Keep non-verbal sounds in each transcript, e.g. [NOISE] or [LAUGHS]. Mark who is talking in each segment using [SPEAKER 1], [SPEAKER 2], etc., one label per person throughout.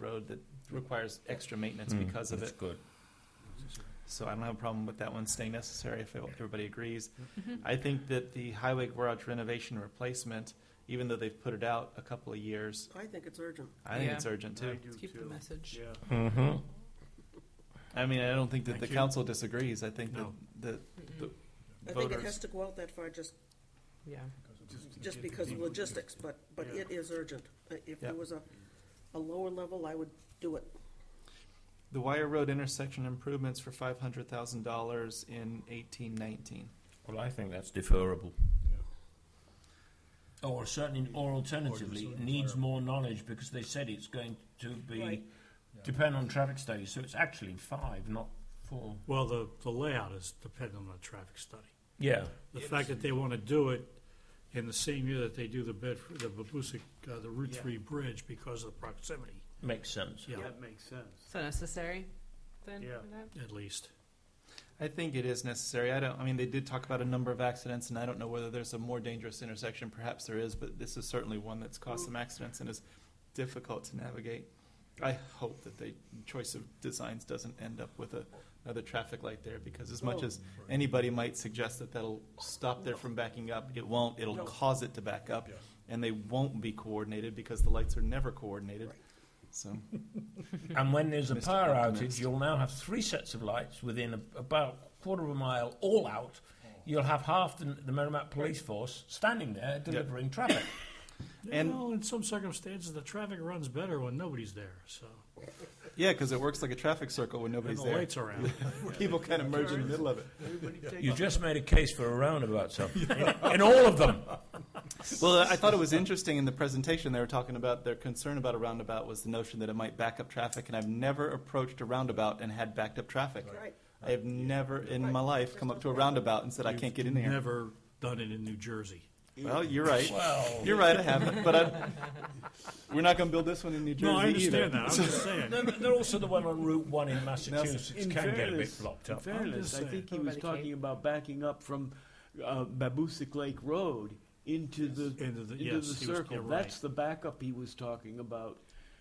[SPEAKER 1] road that requires extra maintenance
[SPEAKER 2] Mm-hmm.
[SPEAKER 3] Mm,
[SPEAKER 1] because of
[SPEAKER 3] that's
[SPEAKER 1] it.
[SPEAKER 3] good.
[SPEAKER 1] So I don't have a problem with that one staying necessary if everybody agrees.
[SPEAKER 4] Mm-hmm.
[SPEAKER 1] I think that the highway garage renovation replacement, even though they've put it out a couple of years,
[SPEAKER 4] I think it's urgent.
[SPEAKER 1] I think
[SPEAKER 5] Yeah.
[SPEAKER 1] it's urgent too.
[SPEAKER 5] Let's keep the message.
[SPEAKER 2] Yeah.
[SPEAKER 3] Mm-hmm.
[SPEAKER 1] I mean, I don't think that
[SPEAKER 2] Thank
[SPEAKER 1] the
[SPEAKER 2] you.
[SPEAKER 1] council disagrees. I think that
[SPEAKER 2] No.
[SPEAKER 1] the
[SPEAKER 5] Mm-mm.
[SPEAKER 4] I think it has
[SPEAKER 1] voters,
[SPEAKER 4] to go out that far just,
[SPEAKER 5] Yeah,
[SPEAKER 4] just because of logistics, but, but
[SPEAKER 2] Yeah.
[SPEAKER 4] it is urgent. Uh, If
[SPEAKER 1] Yeah.
[SPEAKER 4] there was a, a lower level, I would do it.
[SPEAKER 1] the Wire Road intersection improvements for five hundred thousand dollars in eighteen nineteen.
[SPEAKER 3] Well, I think that's deferrable.
[SPEAKER 2] Yeah.
[SPEAKER 3] Or certainly, or alternatively, it needs more knowledge because they said it's going to be,
[SPEAKER 4] Right.
[SPEAKER 3] depend on traffic studies, so it's actually five, not four.
[SPEAKER 2] Well, the, the layout is dependent on the traffic study.
[SPEAKER 3] Yeah.
[SPEAKER 2] The fact that they want to do it in the same year that they do the bed, the Babusick, uh, the Route
[SPEAKER 6] Yeah.
[SPEAKER 2] Three Bridge because of the proximity,
[SPEAKER 3] Makes sense.
[SPEAKER 2] yeah,
[SPEAKER 6] That makes sense.
[SPEAKER 5] so necessary then?
[SPEAKER 6] Yeah.
[SPEAKER 5] for that?
[SPEAKER 2] at least.
[SPEAKER 1] I think it is necessary. I don't, I mean, they did talk about a number of accidents, and I don't know whether there's a more dangerous intersection. Perhaps there is, but this is certainly one that's caused some accidents and is difficult to navigate. I hope that the choice of designs doesn't end up with a, another traffic light there, because as
[SPEAKER 2] Oh.
[SPEAKER 1] much
[SPEAKER 4] No.
[SPEAKER 1] as anybody might suggest that that'll stop there from backing up, it won't. It'll
[SPEAKER 4] No.
[SPEAKER 1] cause it to back up,
[SPEAKER 2] Yeah.
[SPEAKER 1] and they won't be coordinated because the lights are never coordinated.
[SPEAKER 4] Right.
[SPEAKER 1] So,
[SPEAKER 3] And when there's a
[SPEAKER 1] Mr.
[SPEAKER 3] power
[SPEAKER 1] Optimist.
[SPEAKER 3] outage, you'll now have three sets of lights within a, about quarter of a mile, all out. You'll have half the, the Merrimack police force standing there delivering traffic.
[SPEAKER 1] And-
[SPEAKER 2] You know, in some circumstances, the traffic runs better when nobody's there, so,
[SPEAKER 1] yeah, because it works like a traffic circle when
[SPEAKER 2] and
[SPEAKER 1] nobody's
[SPEAKER 2] the
[SPEAKER 1] there.
[SPEAKER 2] lights are
[SPEAKER 1] [LAUGHS]
[SPEAKER 2] out.
[SPEAKER 1] People kind of merge in the middle of it.
[SPEAKER 3] You just made a case for a roundabout, [LAUGHS] sir. In, in all of [LAUGHS] them.
[SPEAKER 1] Well, I thought it was interesting in the presentation, they were talking about their concern about a roundabout was the notion that it might back up traffic, and I've never approached a roundabout and had backed up traffic.
[SPEAKER 4] Right.
[SPEAKER 1] I have never in my
[SPEAKER 4] Right.
[SPEAKER 1] life come up to a roundabout and said, I can't get in here.
[SPEAKER 2] Never done it in New Jersey.
[SPEAKER 1] Well, you're right.
[SPEAKER 3] Well,
[SPEAKER 1] You're right, I haven't, but I, [LAUGHS] we're not gonna build this one in New Jersey either.
[SPEAKER 2] No, I understand that, I'm just
[SPEAKER 1] [LAUGHS]
[SPEAKER 2] saying.
[SPEAKER 3] They're, they're also the one on Route 1 in Massachusetts
[SPEAKER 6] In
[SPEAKER 3] can get a bit
[SPEAKER 6] fairness-
[SPEAKER 3] blocked
[SPEAKER 6] in
[SPEAKER 3] up.
[SPEAKER 6] fairness,
[SPEAKER 2] just saying.
[SPEAKER 6] I think he
[SPEAKER 5] Over by
[SPEAKER 6] was
[SPEAKER 5] the
[SPEAKER 6] talking
[SPEAKER 5] cave.
[SPEAKER 6] about backing up from uh, Babusick Lake Road into the,
[SPEAKER 2] Into the- yes,
[SPEAKER 6] into the
[SPEAKER 2] he was-
[SPEAKER 6] circle.
[SPEAKER 2] you're right.
[SPEAKER 6] That's the backup he was talking about,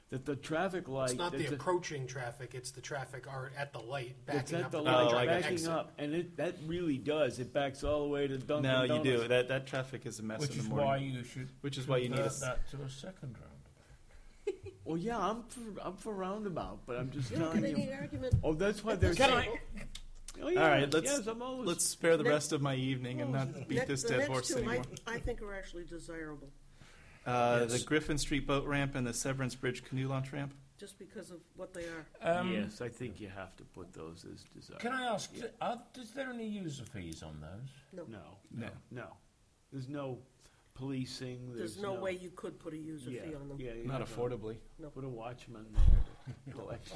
[SPEAKER 6] that the traffic light.
[SPEAKER 7] It's not the
[SPEAKER 6] that's a-
[SPEAKER 7] approaching traffic, it's the traffic are at the light
[SPEAKER 6] That's
[SPEAKER 7] backing
[SPEAKER 6] at
[SPEAKER 7] up.
[SPEAKER 6] the
[SPEAKER 7] to
[SPEAKER 1] Oh,
[SPEAKER 6] light,
[SPEAKER 1] like
[SPEAKER 7] traffic
[SPEAKER 1] an
[SPEAKER 6] backing
[SPEAKER 7] exit.
[SPEAKER 6] up, and it, that really does, it backs all the way to Dunkin'
[SPEAKER 1] No,
[SPEAKER 6] Donuts.
[SPEAKER 1] you do, that, that traffic is a mess
[SPEAKER 3] Which
[SPEAKER 1] in the
[SPEAKER 3] is why
[SPEAKER 1] morning.
[SPEAKER 3] you should.
[SPEAKER 1] Which is why you need a
[SPEAKER 3] convert
[SPEAKER 1] s-
[SPEAKER 3] that to a second round.
[SPEAKER 6] Well, yeah, I'm for, I'm for roundabout, but I'm just
[SPEAKER 4] You're not
[SPEAKER 6] telling
[SPEAKER 4] getting
[SPEAKER 6] you.
[SPEAKER 4] any argument.
[SPEAKER 6] Oh, that's why they're
[SPEAKER 3] Can
[SPEAKER 6] saying. All
[SPEAKER 1] right, let's-
[SPEAKER 6] Yes, I'm always.
[SPEAKER 1] Let's spare the
[SPEAKER 4] Next-
[SPEAKER 1] rest of my evening and not beat
[SPEAKER 4] Next-
[SPEAKER 1] this
[SPEAKER 4] the
[SPEAKER 1] dead
[SPEAKER 4] next
[SPEAKER 1] horse
[SPEAKER 4] two I-
[SPEAKER 1] anymore.
[SPEAKER 4] I think are actually desirable,
[SPEAKER 1] Uh, the
[SPEAKER 3] Yes.
[SPEAKER 1] Griffin Street boat ramp and the Severance Bridge canoe launch ramp?
[SPEAKER 4] just because of what they are.
[SPEAKER 3] Um,
[SPEAKER 6] Yes, I think you have to put those as desirable.
[SPEAKER 3] Can I ask, are, is there any user fees on those?
[SPEAKER 6] No.
[SPEAKER 1] No.
[SPEAKER 6] No. There's no policing. There's,
[SPEAKER 4] There's no way you could put a user
[SPEAKER 6] yeah,
[SPEAKER 4] fee on them.
[SPEAKER 6] Yeah, yeah,
[SPEAKER 1] Not
[SPEAKER 6] no.
[SPEAKER 1] affordably.
[SPEAKER 6] Put a watchman
[SPEAKER 3] [LAUGHS]
[SPEAKER 6] there to collect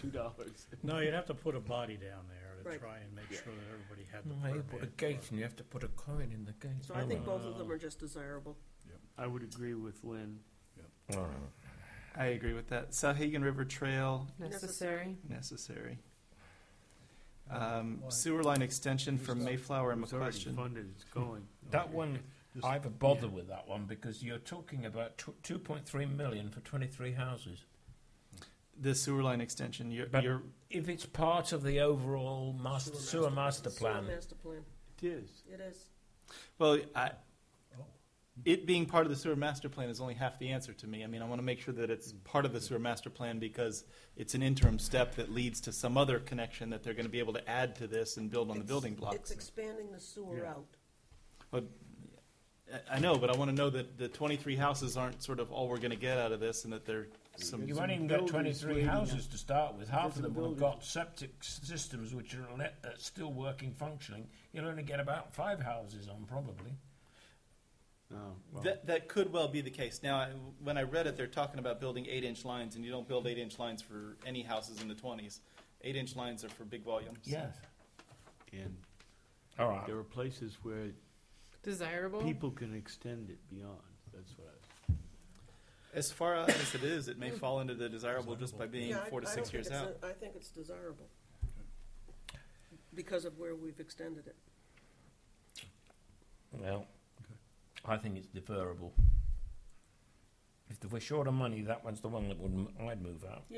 [SPEAKER 6] two dollars.
[SPEAKER 2] No, you'd have to put a body down there to
[SPEAKER 4] Right.
[SPEAKER 2] try and make
[SPEAKER 6] Yeah.
[SPEAKER 2] sure that everybody had
[SPEAKER 3] No, you
[SPEAKER 2] the
[SPEAKER 3] put a gate
[SPEAKER 2] permit.
[SPEAKER 3] and you have to put a coin in the gate.
[SPEAKER 4] So I think both of them are just desirable.
[SPEAKER 6] I would agree with Lynn.
[SPEAKER 1] I agree with that. Sauhegan River Trail,
[SPEAKER 5] Necessary?
[SPEAKER 1] necessary. Um, sewer line extension for Mayflower and
[SPEAKER 6] It's already
[SPEAKER 1] McQuestion.
[SPEAKER 6] funded. It's going.
[SPEAKER 3] [LAUGHS] That one, I have a bother with that one because you're talking about tw- 2.3 million for 23 houses.
[SPEAKER 1] The sewer line extension, you're,
[SPEAKER 3] But-
[SPEAKER 1] you're,
[SPEAKER 3] If it's part of the overall master, sewer master
[SPEAKER 4] Sewer
[SPEAKER 3] plan,
[SPEAKER 4] Master plan,
[SPEAKER 6] It is.
[SPEAKER 4] it is.
[SPEAKER 1] well, I, it being part of the sewer master plan is only half the answer to me. I mean, I want to make sure that it's part of the sewer master plan because it's an interim step that leads to some other connection that they're going to be able to add to this and build on the
[SPEAKER 4] It's-
[SPEAKER 1] building
[SPEAKER 4] It's
[SPEAKER 1] blocks.
[SPEAKER 4] expanding the sewer
[SPEAKER 6] Yeah.
[SPEAKER 4] out.
[SPEAKER 1] I- I know, but I want to know that the twenty-three houses aren't sort of all we're going to get out of this and that there some.
[SPEAKER 3] you won't even
[SPEAKER 6] some
[SPEAKER 3] get
[SPEAKER 6] buildings
[SPEAKER 3] 23
[SPEAKER 6] waiting
[SPEAKER 3] houses to start with. Half
[SPEAKER 6] There's
[SPEAKER 3] of them
[SPEAKER 6] some
[SPEAKER 3] will have
[SPEAKER 6] buildings.
[SPEAKER 3] got septic s- systems which are le- uh, still working, functioning. You'll only get about five houses on, probably.
[SPEAKER 6] Oh, well,
[SPEAKER 1] That, that could well be the case. Now, I, when I read it, they're talking about building eight inch lines, and you don't build eight inch lines for any houses in the 20s. Eight inch lines are for big volumes.
[SPEAKER 3] Yes.
[SPEAKER 6] and
[SPEAKER 3] All right.
[SPEAKER 6] there are places where
[SPEAKER 5] Desirable?
[SPEAKER 6] people can extend it beyond. That's what I.
[SPEAKER 1] As far out as it is, it may fall into the desirable just by being
[SPEAKER 4] Yeah, I-
[SPEAKER 1] four to
[SPEAKER 4] I don't
[SPEAKER 1] six
[SPEAKER 4] think
[SPEAKER 1] years
[SPEAKER 4] it's
[SPEAKER 1] out.
[SPEAKER 4] a- I think it's desirable because of where we've extended it.
[SPEAKER 3] Well, I think it's deferrable. If we're short on money, that one's the one that would, I'd move out.